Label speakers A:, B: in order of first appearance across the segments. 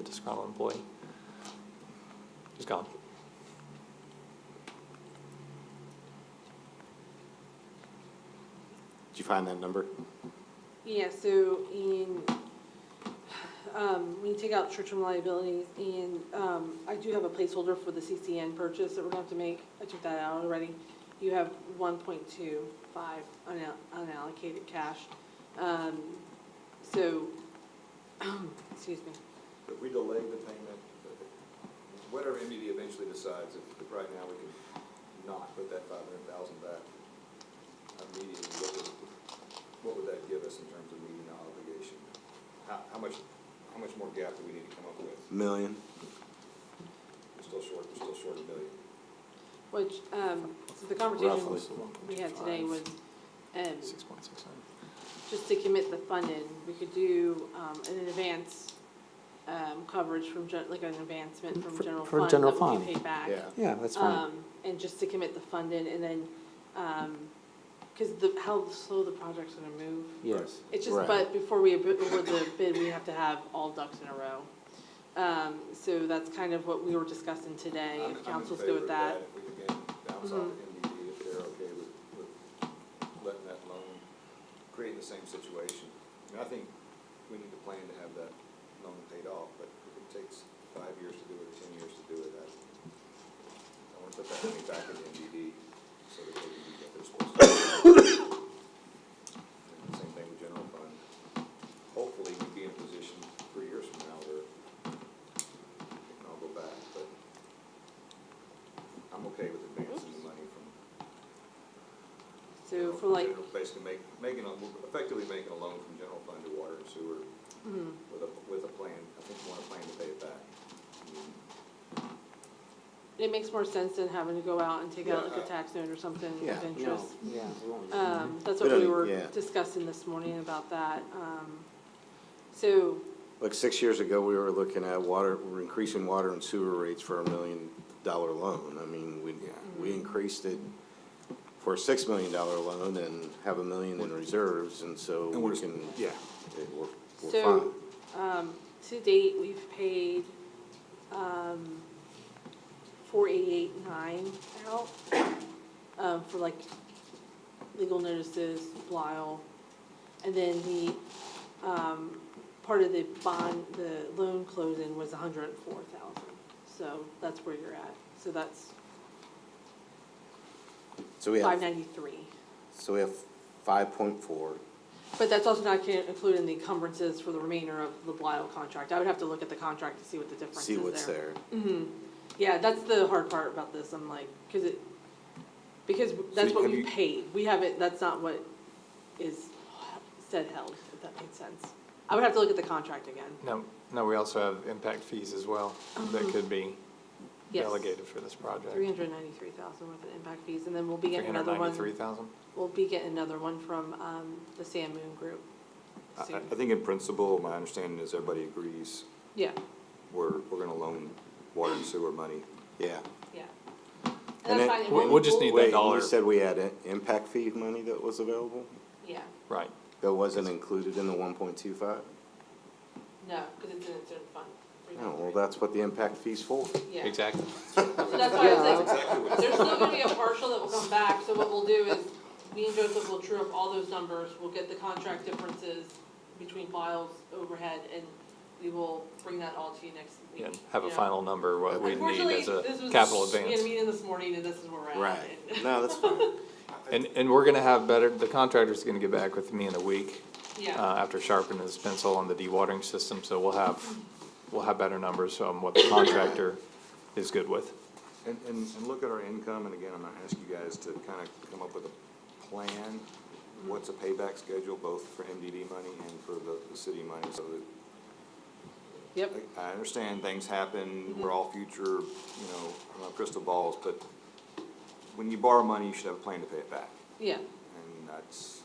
A: a disgruntled employee. He's gone.
B: Did you find that number?
C: Yeah, so in, um, when you take out short-term liabilities, and, um, I do have a placeholder for the CCN purchase that we're gonna have to make. I took that out already. You have one point two five unallocated cash. Um, so, excuse me.
D: But we delay the payment, but whatever MED eventually decides, if, if right now we can not put that five hundred thousand back immediately, what would, what would that give us in terms of meeting the obligation? How, how much, how much more gap do we need to come up with?
B: Million.
D: We're still short, we're still short a million.
C: Which, um, so the
B: Roughly.
C: conversation
B: It's
C: we had today was, um,
A: Six point six nine.
C: just to commit the fund in, we could do, um, an advance, um, coverage from gen, like an advancement from
A: For-
C: general
A: for
C: fund
A: general
C: that would
A: fund.
C: be paid back.
A: Yeah, that's fine.
C: Um, and just to commit the fund in and then, um, cause the, how slow the project's gonna move.
A: Yes.
C: It's just,
B: Right.
C: but before we bid, award the bid, we have to have all ducks in a row. Um, so that's kind of what we were discussing today,
D: I'm- I'm
C: if
D: in
C: council's
D: favor
C: good
D: of
C: with that. Mm-hmm.
D: If we can gain, bounce off of MED, if they're okay with, with letting that loan, creating the same situation. I mean, I think we need to plan to have that loan paid off, but if it takes five years to do it, ten years to do it, I, I wanna put that money back into MED so that they can do what they're supposed to do. And Same thing with general fund. Hopefully, we'd be in a position three years from now where it can all go back, but I'm okay with advancing the money from.
C: So
D: general-
C: for like,
D: general- Basically make, making a, effectively making a loan from general fund to water and sewer
C: mhm.
D: with a, with a plan, I think we want a plan to pay it back.
C: it makes more sense than having to go out and take out
D: Yeah,
C: like a
D: I-
C: tax note or something
B: Yeah,
C: of interest.
A: yeah.
C: Um, that's
B: We
C: what we
B: don't-
C: were
B: yeah.
C: discussing this morning about that, um, so,
B: Like six years ago, we were looking at water, we're increasing water and sewer rates for a million dollar loan. I mean, we,
C: Mm-hmm.
B: we increased it for a six million dollar loan and have a million in reserves, and so we can, yeah, it- we're, we're fine.
C: So, um, to date, we've paid, um, four eighty-eight nine out, um, for like legal notices, Blile. And then the, um, part of the bond, the loan closing was a hundred and four thousand. So that's where you're at. So that's
B: So we have,
C: five ninety-three.
B: so we have five point four.
C: But that's also not ca- including the encumbrances for the remainder of the Blile contract. I would have to look at the contract to see what the difference is
B: See
C: there. Mm-hmm.
B: what's there.
C: Yeah, that's the hard part about this, I'm like, cause it, because that's what
D: have
C: we
D: you-
C: paid, we haven't, that's not what is said held, if that makes sense. I would have to look at the contract again,
A: No, no, we also have impact fees as well that could be
C: Uh-huh. yes.
A: delegated for this project.
C: Three hundred ninety-three thousand worth of impact fees, and then we'll be getting another
A: Three
C: one,
A: thousand?
C: we'll be getting another one from, um, the Sand Moon Group
A: Uh,
D: I,
C: soon.
D: I think in principle, my understanding is everybody agrees,
C: Yeah,
D: we're, we're gonna loan water and sewer money.
B: Yeah.
C: yeah.
B: And
C: And that's
B: it-
C: fine. and
A: we-
C: when
A: we'll just
C: we-
A: need that
B: Wait,
A: dollar.
B: you said we had an impact fee money that was available?
C: Yeah,
A: Right.
B: That wasn't included in the one point two five?
C: no, cause it's in a certain fund.
B: Oh, well, that's what the impact fee's for.
C: Yeah.
A: Exactly.
C: So that's why I was like, there's still gonna be a partial that will come back, so what we'll do is, me and Joseph will true up all those numbers, we'll get the contract differences between files, overhead, and we will bring that all to you next week.
A: And have a
C: you know.
A: final number, what we need
C: Unfortunately,
A: as a
C: this was,
A: capital
C: we had
A: advance.
C: a meeting this morning, and this is where we're at.
B: Right. No, that's fine.
A: And, and we're gonna have better, the contractor's gonna get back with me in a week, uh,
C: Yeah,
A: after sharpening his pencil on the dewatering system, so we'll have, we'll have better numbers on what the contractor is good with.
D: And, and, and look at our income, and again, I'm gonna ask you guys to kind of come up with a plan. What's a payback schedule, both for MDD money and for the, the city money, so that
C: yep,
D: I I understand things happen, we're all future, you know, I don't know, crystal balls, but when you borrow money, you should have a plan to pay it back.
C: yeah,
D: And that's,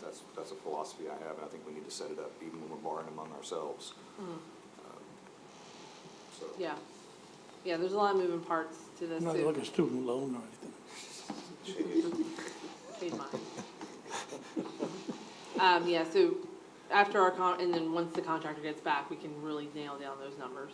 D: that's, that's a philosophy I have, and I think we need to set it up even when we're borrowing among ourselves. Um, So.
C: yeah, yeah, there's a lot of moving parts to this,
E: Not
C: so
E: like a student loan or anything.
C: paid mine. Um, yeah, so after our con, and then once the contractor gets back, we can really nail down those numbers.